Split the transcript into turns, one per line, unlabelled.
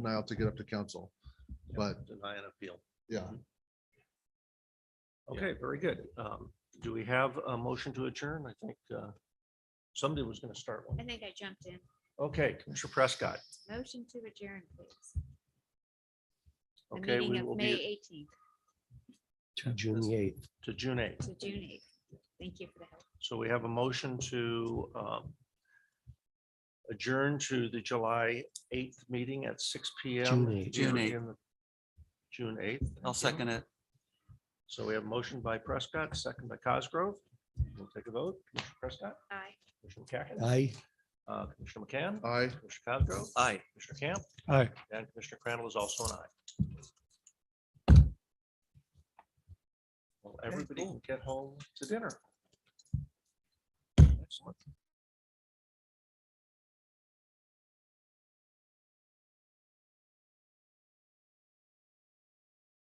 denial to get up to council. But
Deny an appeal.
yeah,
Okay, very good. Um, do we have a motion to adjourn? I think, uh, somebody was gonna start
I
one.
think I jumped in.
Okay, Commissioner Prescott.
Motion to adjourn, please. The
Okay,
meeting
we
of
will
May
be
eighteenth
To June eighth.
to June eighth.
to June eighth. Thank you for the help.
So we have a motion to, um, adjourn to the July eighth meeting at six P
June
M.
eighth.
June eighth.
June eighth.
I'll second it.
So we have a motion by Prescott, second by Cosgrove. We'll take a vote. Commissioner Prescott,
Aye.
Commissioner McCacken,
Aye.
uh, Commissioner McCann,
I.
Commissioner Cosgrove,
Aye.
Commissioner Camp,
Aye.
and Commissioner Crandall is also an aye. Well, everybody can get home to dinner. Excellent.